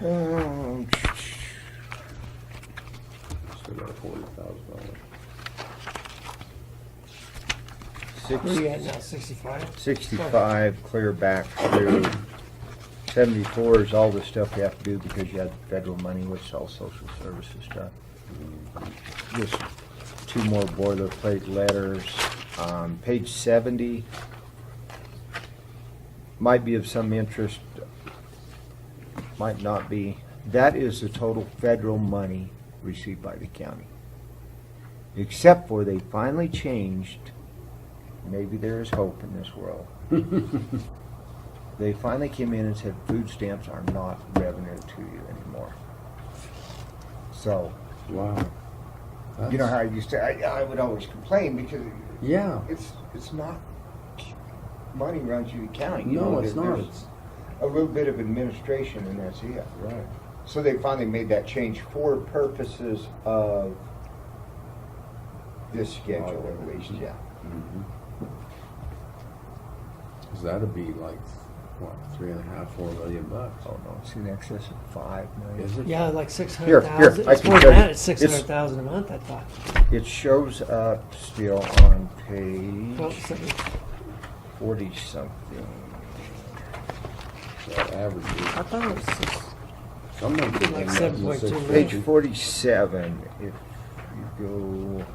Um, So about forty thousand dollars. six- Where are you at now, sixty-five? Sixty-five, clear back through seventy-four is all the stuff you have to do because you had federal money, which is all social services stuff. Just two more boilerplate letters. Um, page seventy might be of some interest, might not be. That is the total federal money received by the county. Except for they finally changed, maybe there is hope in this world. They finally came in and said food stamps are not revenue to you anymore. So, Wow. you know That's- how I used to, I, I would always complain because Yeah. it's, it's not, money runs through the county. you know, No, it's there- not. there's It's, A little bit of administration and that's it. right. So they finally made that change for purposes of this schedule Oh. at least, yeah. Mhm. 'Cause that'd be like, what, three and a half, four million bucks? Oh no, it's in excess of five Is million. it? Yeah, like six here, hundred thousand. I It's can more show than you. that, it's It's- six hundred thousand a month, I thought. It shows up still on Well, page so- forty something. So average is- I thought it was six, Some of them Like are seven point two six million. Page fifty. forty-seven, if you go.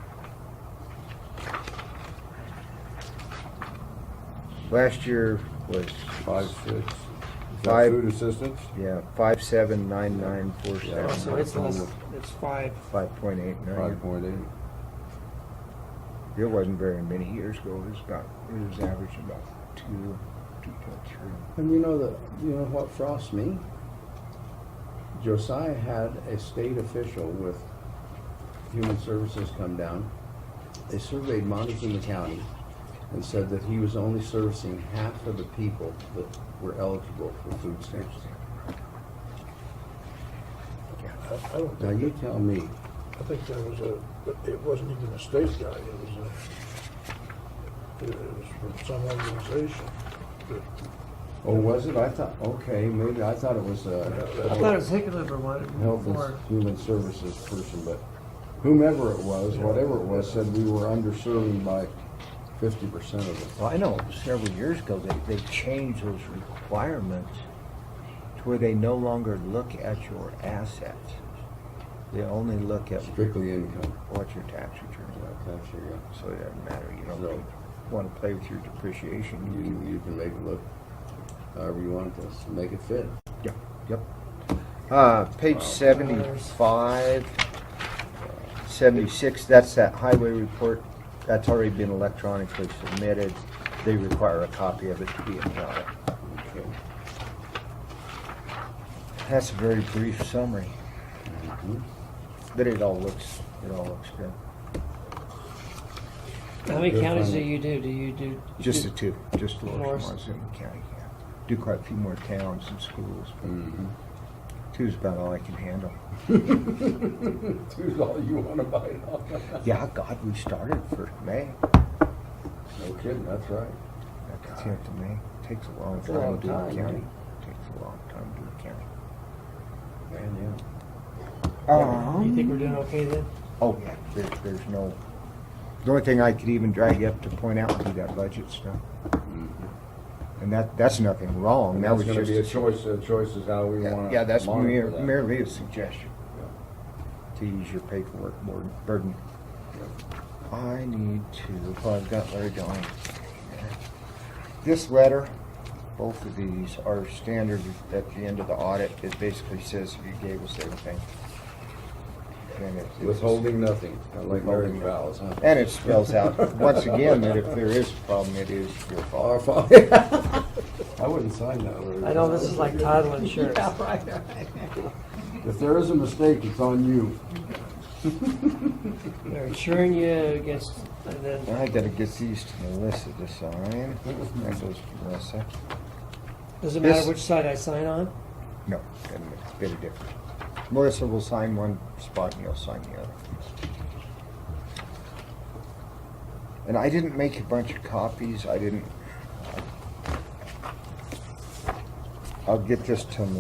Last year was, Five, six. Is that Five. Food assistance? yeah, five seven nine nine four Yeah. Oh, so seven, it's less, it's five. five point eight Five million. point eight. It wasn't very many years ago, it was about, it was averaging about two, two point three. And you know the, you know what frosts me? Josiah had a state official with Human Services come down. They surveyed Montezuma County and said that he was only servicing half of the people that were eligible for food stamps. I I don't Now think, you tell me, I think that was a, it wasn't even a state guy, it was a, it was from some organization. that- oh, was it? I thought, okay, maybe, I thought it was I thought it a was Hickenlooper one, health more. and human services person, but whomever it was, whatever it was, said we were underserving by fifty percent of it. Well, I know several years ago, they, they changed those requirements to where they no longer look at your assets. They only look at Strictly income. what your tax return Yeah, is. that's your, uh, So it doesn't matter, you No. don't wanna play with your depreciation. You, you can make it look however you want this, make it fit. Yep, yep. Uh, page Wow. seventy-five, seventy-six, that's that highway report. That's already been electronically submitted. They require a copy of it to be in audit. Okay. That's a very brief summary. Mhm. But it all looks, it all looks good. How many Good counties do finding. you do? Do you do? Just the do- two, just Lower Morris. Montezuma County, yeah. Do quite a few more towns and schools, Mhm. but two's about all I can handle. Two's all you wanna bite off. Yeah, God, we started for May, No kidding, that's right. like the tenth of May. Takes a long That's a long time to do time, a yeah. county. Takes a long time to do a county. Man, Um, You think we're doing okay then? Oh, yeah, there, there's no, the only thing I could even drag up to point out would be that budget stuff. yeah. And that, that's nothing wrong. Mm-hmm. And That was that's gonna just be a choice, a choice is how we Yeah, wanna. yeah, that's monitor mere- that. merely a suggestion. To use your paperwork board- burden. I need to, oh, I've got Larry going. This letter, both of these are standard at the end of the audit. It basically says you gave us everything. And it- it's- Withholding nothing, kinda like marriage Withholding vows, huh? And it spells out, once again, that if there is a problem, it is your fault. Our fault. I wouldn't sign that. Larry. I know this is like title insurance. Yeah, right, right. If there is a mistake, it's on you. They're insuring you against, and then I gotta get these to Melissa to sign. That goes to Melissa. does it matter This- which side I sign on? No, and it's a bit of difference. Melissa will sign one spot and you'll sign the other. And I didn't make a bunch of copies, I didn't. I'll get this to